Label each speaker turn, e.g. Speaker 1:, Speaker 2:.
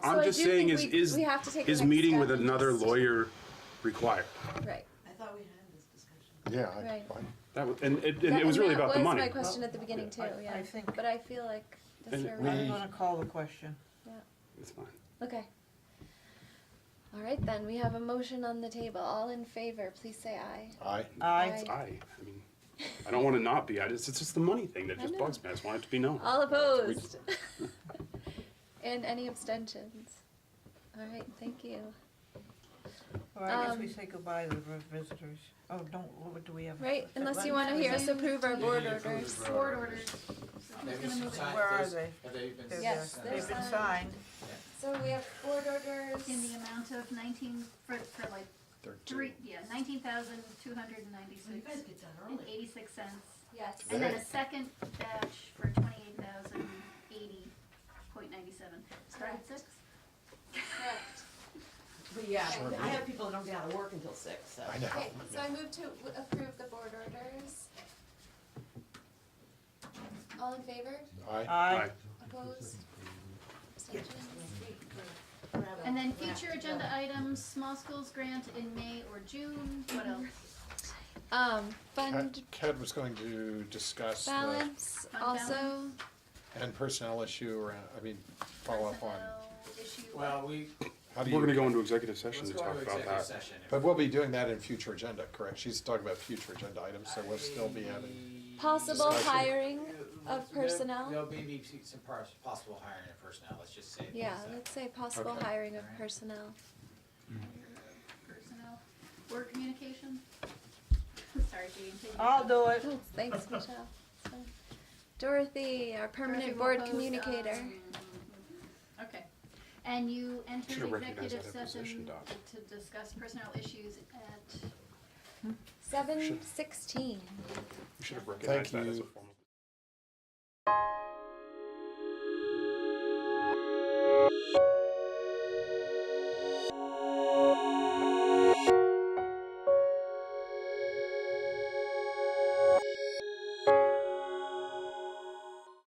Speaker 1: So
Speaker 2: I'm
Speaker 1: I
Speaker 2: just
Speaker 1: do
Speaker 2: saying
Speaker 1: think
Speaker 2: is,
Speaker 1: we-
Speaker 2: is,
Speaker 1: we have to take the
Speaker 2: is
Speaker 1: next
Speaker 2: meeting with
Speaker 1: step and
Speaker 2: another
Speaker 1: just-
Speaker 2: lawyer required?
Speaker 1: Right.
Speaker 3: I thought we had this discussion.
Speaker 4: Yeah, I,
Speaker 1: Right.
Speaker 4: I,
Speaker 2: That was, and it, and
Speaker 1: That-
Speaker 2: it was
Speaker 1: and
Speaker 2: really
Speaker 1: that
Speaker 2: about the
Speaker 1: was
Speaker 2: money.
Speaker 1: my question at the beginning too,
Speaker 5: I-
Speaker 1: yeah.
Speaker 5: I think-
Speaker 1: But I feel like that's
Speaker 2: And
Speaker 1: where we
Speaker 5: I'm
Speaker 1: are.
Speaker 5: gonna call the question.
Speaker 2: It's fine.
Speaker 1: Okay. All right, then, we have a motion on the table. All in favor, please say aye.
Speaker 4: I,
Speaker 5: Aye.
Speaker 2: I, I mean, I don't want to not be. I just, it's just the money thing that
Speaker 1: I
Speaker 2: just
Speaker 1: know.
Speaker 2: bugs me. I just want it to be known.
Speaker 1: All opposed? And any abstentions? All right, thank you.
Speaker 5: Or I guess we
Speaker 1: Um,
Speaker 5: say goodbye to the visitors. Oh, don't, what do we have?
Speaker 1: Right, unless you
Speaker 5: Let-
Speaker 1: want to hear us approve our board orders.
Speaker 6: Board orders. So who's
Speaker 7: Maybe
Speaker 6: gonna
Speaker 7: some
Speaker 6: move it?
Speaker 7: sign-
Speaker 5: Where are
Speaker 7: there's-
Speaker 5: they?
Speaker 7: Have they been?
Speaker 5: They're-
Speaker 1: Yes,
Speaker 7: sent?
Speaker 1: they're
Speaker 5: They've been
Speaker 1: signed.
Speaker 5: signed.
Speaker 1: So we have board orders.
Speaker 6: In the amount of nineteen, for, for like three, yeah, nineteen thousand two hundred and
Speaker 3: So you guys get
Speaker 6: ninety-six
Speaker 3: done
Speaker 6: and
Speaker 3: early.
Speaker 6: eighty-six cents.
Speaker 1: Yes.
Speaker 6: And then a second batch for twenty-eight thousand eighty point ninety-seven. Started
Speaker 1: Correct.
Speaker 6: six?
Speaker 1: Correct.
Speaker 3: But yeah,
Speaker 1: Sure.
Speaker 3: I have people that don't get out of work until six, so.
Speaker 4: I know.
Speaker 1: Okay, so I move to w- approve the board orders. All in favor?
Speaker 4: I,
Speaker 5: Aye.
Speaker 2: Aye.
Speaker 1: Opposed? Abstentions?
Speaker 6: And then future agenda items, small schools grant in May or June, what
Speaker 3: Mhm.
Speaker 6: else?
Speaker 1: Um,
Speaker 4: Ted,
Speaker 1: fund
Speaker 4: Ted was going to discuss the,
Speaker 1: balance
Speaker 6: Fund
Speaker 1: also.
Speaker 6: balance.
Speaker 4: and personnel issue around, I mean, follow up on,
Speaker 6: Personnel Issue.
Speaker 7: Well, we,
Speaker 4: how do
Speaker 2: We're going to
Speaker 4: you?
Speaker 2: go into executive session
Speaker 7: let's
Speaker 2: to
Speaker 7: go
Speaker 2: talk
Speaker 7: into
Speaker 2: about
Speaker 7: executive
Speaker 2: that.
Speaker 7: session.
Speaker 4: But we'll be doing that in future agenda, correct? She's talking about future agenda items, so we'll still be having,
Speaker 7: having.
Speaker 1: Possible
Speaker 4: Discussion.
Speaker 1: hiring of
Speaker 7: There'll
Speaker 1: personnel.
Speaker 7: be some pers- possible hiring of personnel, let's just say.
Speaker 1: Yeah,
Speaker 7: that.
Speaker 1: let's say possible
Speaker 2: Okay.
Speaker 1: hiring of
Speaker 7: Alright.
Speaker 1: personnel.
Speaker 6: Personnel, word communication? Sorry, Jean. take it.
Speaker 5: I'll do it.
Speaker 1: Oh, Thanks, Michelle. It's fine. Dorothy, our permanent board communicator.
Speaker 6: Okay. And you entered
Speaker 2: Should've recognized
Speaker 6: executive
Speaker 2: that in position
Speaker 6: session
Speaker 2: doc.
Speaker 6: to discuss personnel issues at
Speaker 1: Seven sixteen.
Speaker 2: You should have recognized that as a
Speaker 4: you.
Speaker 2: formal.